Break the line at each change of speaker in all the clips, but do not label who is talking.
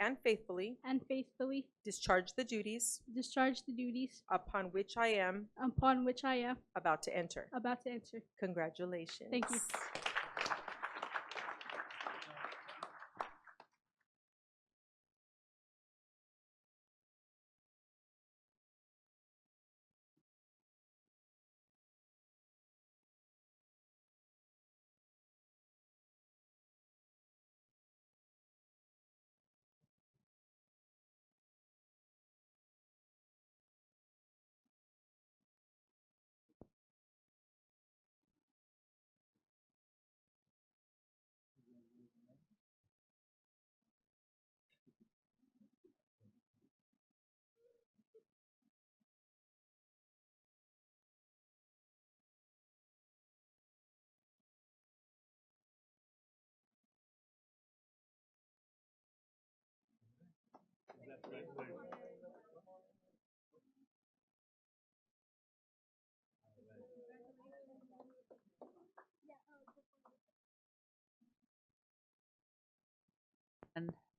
and faithfully
and faithfully
discharge the duties
discharge the duties
upon which I am
upon which I am
about to enter.
about to enter.
Congratulations.
Thank you.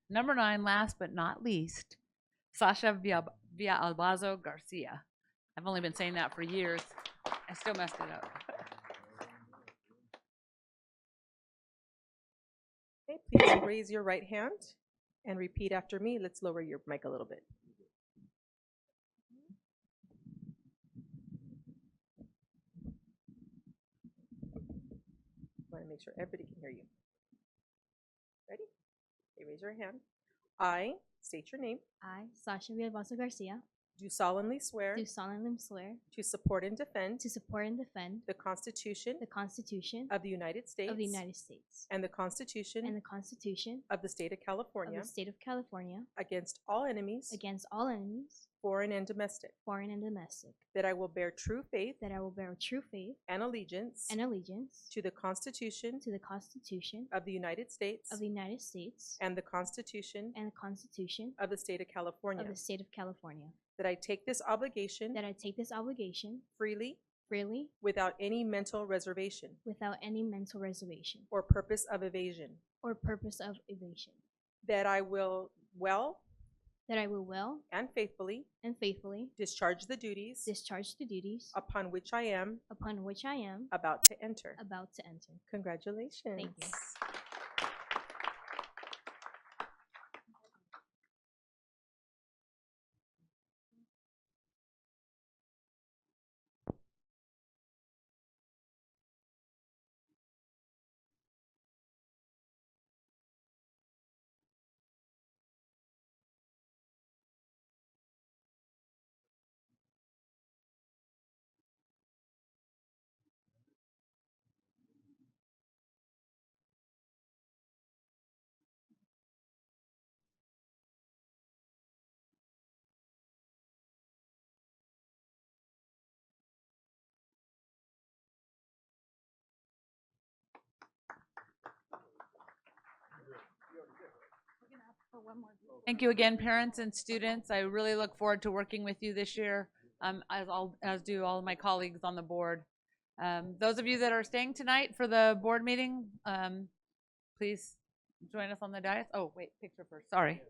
Number nine, last but not least, Sasha Via Albazo Garcia. I've only been saying that for years. I still messed it up.
Okay, please raise your right hand and repeat after me. Let's lower your mic a little bit. Want to make sure everybody can hear you. Ready? Okay, raise your hand. I state your name.
I, Sasha Villalbazo Garcia,
Do solemnly swear
do solemnly swear
to support and defend
to support and defend
the Constitution
the Constitution
of the United States
of the United States
and the
and
Constitution
the Constitution
of the State of
of
California
the State of California
against all enemies,
against all enemies,
foreign and domestic.
foreign and domestic,
That I will bear true faith
that I will bear true faith
and allegiance
and allegiance
to the Constitution
to the Constitution
of the United States
of the United States
and the Constitution
and the Constitution
of the State of California.
of the State of California,
That I take this obligation
that I take this obligation
freely
freely
without any mental reservation
without any mental reservation
or purpose of evasion.
or purpose of evasion,
That I will well
that I will well
and faithfully
and faithfully
discharge the duties
discharge the duties
upon which I am
upon which I am
about to enter.
about to enter.
Congratulations.
Thank you again, parents and students. I really look forward to working with you this year, um, as all, as do all my colleagues on the board. Um, those of you that are staying tonight for the board meeting, um, please join us on the dais. Oh, wait, picture first, sorry.